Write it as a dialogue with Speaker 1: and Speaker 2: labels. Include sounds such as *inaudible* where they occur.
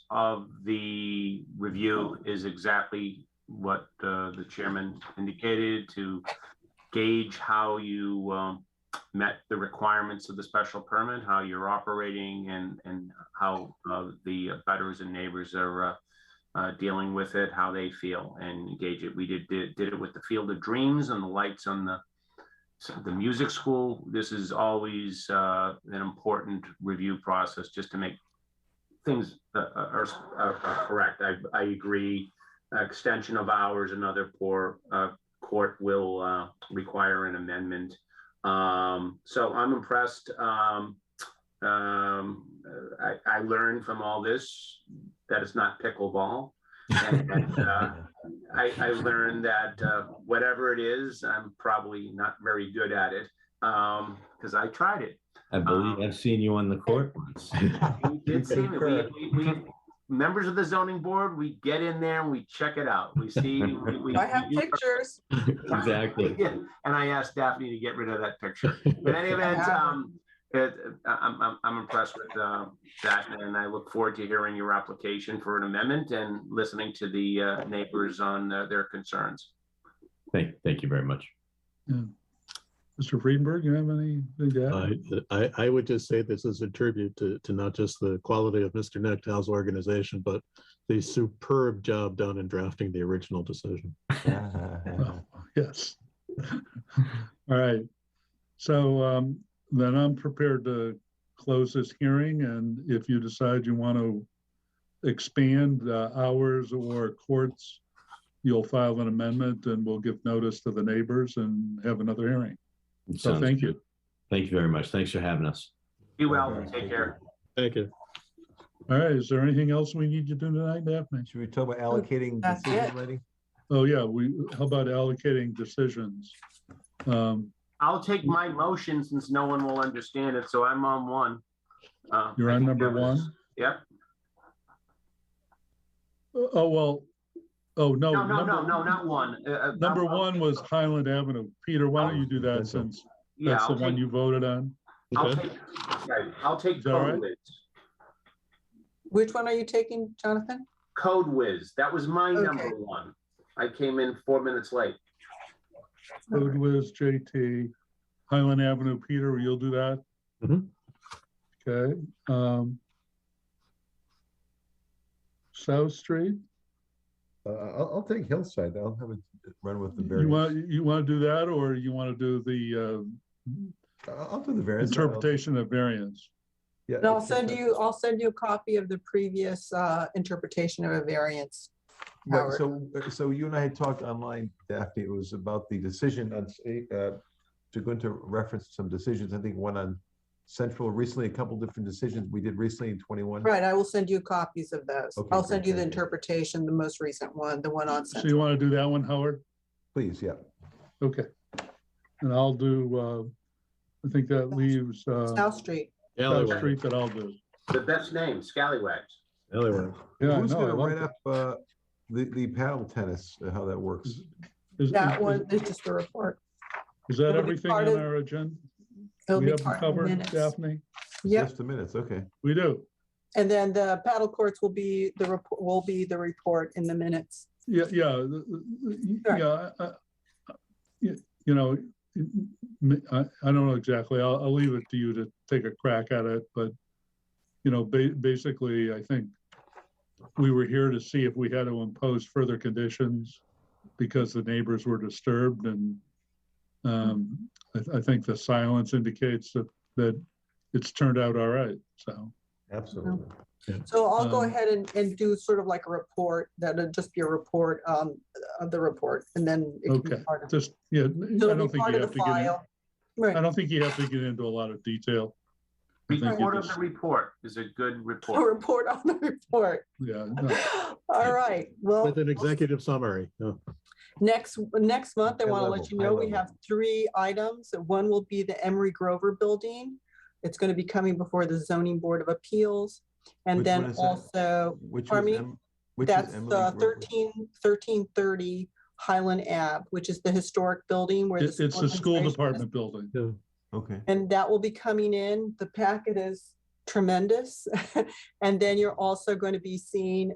Speaker 1: of the review is exactly what uh, the chairman indicated to gauge how you um, met the requirements of the special permit, how you're operating and, and how uh, the butters and neighbors are uh, uh, dealing with it, how they feel and engage it. We did, did, did it with the Field of Dreams and the lights on the, so the music school. This is always uh, an important review process just to make things uh, are, are, are correct. I, I agree. Extension of hours, another poor uh, court will uh, require an amendment. Um, so I'm impressed. Um, um, I, I learned from all this that it's not pickleball. And,
Speaker 2: *laughs*
Speaker 1: and, uh, I, I learned that uh, whatever it is, I'm probably not very good at it because I tried it.
Speaker 3: I believe I've seen you on the court once.
Speaker 2: *laughs*
Speaker 1: We did see it. We, we, we, members of the zoning board, we get in there and we check it out. We see. We,
Speaker 4: *laughs*
Speaker 1: we,
Speaker 4: I have pictures.
Speaker 3: Exactly.
Speaker 1: Yeah, And I asked Daphne to get rid of that picture. But
Speaker 4: *laughs*
Speaker 1: any event, um, it, I'm, I'm, I'm impressed with, uh, that and I look forward to hearing your application for an amendment and listening to the, uh, neighbors on uh, their concerns.
Speaker 3: Thank, thank you very much.
Speaker 2: Mr. Friedenberg, you have anything to add?
Speaker 5: I, I, I would just say this is a tribute to, to not just the quality of Mr. Nechtow's organization, but the superb job done in drafting the original decision.
Speaker 2: Oh, Yes. *laughs* All right. So um, then I'm prepared to close this hearing and if you decide you want to expand uh, hours or courts, you'll file an amendment and we'll give notice to the neighbors and have another hearing. So
Speaker 3: Sounds
Speaker 2: thank you.
Speaker 3: good. Thank you very much. Thanks for having us.
Speaker 1: Be well, take care.
Speaker 5: Thank you.
Speaker 2: All right, is there anything else we need to do tonight, Daphne?
Speaker 6: Should we talk about allocating
Speaker 4: Oh, That's
Speaker 6: decision
Speaker 4: it.
Speaker 6: writing?
Speaker 2: Oh, yeah, we, how about allocating decisions? Um,
Speaker 1: I'll take my motion since no one will understand it, so I'm on one. Uh,
Speaker 2: You're
Speaker 1: I
Speaker 2: on
Speaker 1: think
Speaker 2: number
Speaker 1: that was-
Speaker 2: one?
Speaker 1: Yep.
Speaker 2: Oh, well, oh, no.
Speaker 1: No, no, no,
Speaker 2: number-
Speaker 1: no, not one. Uh, uh,
Speaker 2: Number
Speaker 1: I'll-
Speaker 2: one was Highland Avenue. Peter, why don't you do that since
Speaker 1: Yeah,
Speaker 2: that's the
Speaker 1: I'll
Speaker 2: one
Speaker 1: take,
Speaker 2: you voted on?
Speaker 1: I'll
Speaker 5: Okay.
Speaker 1: take, right, I'll take
Speaker 2: Is that all right?
Speaker 1: Code Whiz.
Speaker 4: Which one are you taking, Jonathan?
Speaker 1: Code Whiz, that was my
Speaker 4: Okay.
Speaker 1: number one. I came in four minutes late.
Speaker 2: Code Whiz, JT, Highland Avenue, Peter, you'll do that?
Speaker 6: Mm-hmm.
Speaker 5: Mhm.
Speaker 2: Okay, um. South Street,
Speaker 6: Uh, I'll, I'll take Hillside. I'll have a run with the
Speaker 2: you
Speaker 6: variance.
Speaker 2: want, you want to do that or you want to do the
Speaker 6: I'll I'll do the
Speaker 2: uh,
Speaker 6: variance. I'll-
Speaker 2: interpretation of variance?
Speaker 6: Yeah,
Speaker 2: Uh,
Speaker 4: And I'll
Speaker 6: it's-
Speaker 4: send you, I'll send you a copy of the previous uh, interpretation of a variance.
Speaker 6: Right,
Speaker 4: Howard.
Speaker 6: so, so you and I had talked online, Daphne, it was about the decision on, sa- uh, to go into reference some decisions, I think one on Central recently, a couple different decisions we did recently in twenty-one.
Speaker 4: Right, I will send you copies of those.
Speaker 6: Okay,
Speaker 4: I'll
Speaker 6: great,
Speaker 4: send you the
Speaker 6: thank you.
Speaker 4: interpretation, the most recent one, the one on
Speaker 2: So you
Speaker 4: Central.
Speaker 2: want to do that one, Howard?
Speaker 6: Please, yeah.
Speaker 2: Okay. And I'll do, uh, I think that leaves, uh,
Speaker 4: South Street.
Speaker 2: South
Speaker 5: Alleyway,
Speaker 2: Street that I'll do.
Speaker 1: The best name, Scallywags.
Speaker 5: alleyway.
Speaker 2: Yeah, I
Speaker 6: Who's
Speaker 2: know, I
Speaker 6: gonna
Speaker 2: like
Speaker 6: write
Speaker 2: that.
Speaker 6: up, uh, the, the paddle tennis, uh, how that works?
Speaker 4: Mm-hmm.
Speaker 2: Is- is-
Speaker 4: That
Speaker 2: is-
Speaker 4: one is just a report.
Speaker 2: Is that
Speaker 4: It'll be
Speaker 2: everything
Speaker 4: part
Speaker 2: on
Speaker 4: of-
Speaker 2: our agenda?
Speaker 4: It'll
Speaker 2: We
Speaker 4: be
Speaker 2: have them
Speaker 4: part of the
Speaker 2: covered,
Speaker 4: minutes.
Speaker 2: Daphne?
Speaker 4: Yep, Mm-hmm.
Speaker 6: Just the minutes, okay.
Speaker 2: We do.
Speaker 4: and then the paddle courts will be, the, rep- will be the report in the minutes.
Speaker 2: Yeah, uh, yeah, the- the-
Speaker 4: Sure.
Speaker 2: yeah. I- I- You you know, I, I don't know exactly. I'll, I'll leave it to you to take a crack at it, but, you know, ba- basically, I think we were here to see if we had to impose further conditions because the neighbors were disturbed and um, I, I think the silence indicates that, that it's turned out all right, so.
Speaker 6: Absolutely.
Speaker 4: So I'll go
Speaker 2: Um,
Speaker 4: ahead and, and do sort of like a report, that'll just be a report, um, of the report, and then. it can be
Speaker 2: Okay,
Speaker 4: part of-
Speaker 2: Just, yeah,
Speaker 4: So
Speaker 2: I
Speaker 4: it'll
Speaker 2: don't
Speaker 4: be
Speaker 2: think
Speaker 4: part
Speaker 2: you
Speaker 4: of the
Speaker 2: have to get, in-
Speaker 4: file. Right.
Speaker 2: I don't think you have to get into a lot of detail. I think you
Speaker 1: Report of
Speaker 2: just-
Speaker 1: the report is a good
Speaker 4: A
Speaker 1: report.
Speaker 4: report on the report.
Speaker 2: Yeah, no,
Speaker 4: All right, well,
Speaker 5: With an executive summary. yeah.
Speaker 4: next, next month, I
Speaker 6: High
Speaker 4: want to
Speaker 6: level,
Speaker 4: let you
Speaker 6: high
Speaker 4: know, we
Speaker 6: level.
Speaker 4: have three items. One will be the Emery Grover Building. It's going to be coming before the Zoning Board of Appeals. And
Speaker 6: Which one
Speaker 4: then
Speaker 6: is that?
Speaker 4: also,
Speaker 6: Which
Speaker 4: Oh,
Speaker 6: was,
Speaker 4: pardon me?
Speaker 6: Em- which was
Speaker 4: that's uh,
Speaker 6: Emily
Speaker 4: the
Speaker 6: Grover?
Speaker 4: 13 1330 Highland Ave, which is the historic building where.
Speaker 2: it- it's the school
Speaker 4: administration is
Speaker 2: department building.
Speaker 5: Yeah.
Speaker 6: Okay.
Speaker 4: And that will be coming in. The packet is *laughs* tremendous. And then you're also going to be seeing